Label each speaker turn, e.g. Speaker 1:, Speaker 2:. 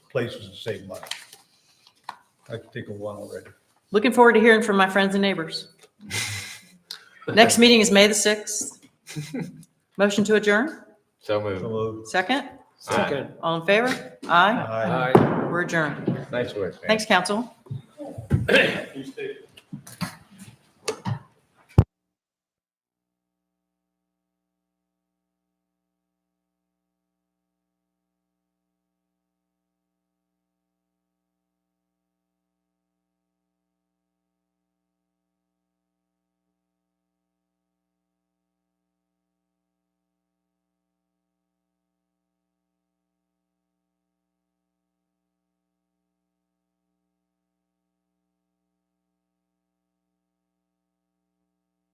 Speaker 1: places to save money. I could think of one already.
Speaker 2: Looking forward to hearing from my friends and neighbors. Next meeting is May the 6th. Motion to adjourn?
Speaker 3: So moved.
Speaker 1: Hello.
Speaker 2: Second?
Speaker 3: Second.
Speaker 2: All in favor? Aye.
Speaker 1: Hi.
Speaker 3: Aye.
Speaker 2: We're adjourned.
Speaker 3: Nice work, man.
Speaker 2: Thanks, council.
Speaker 4: Tuesday.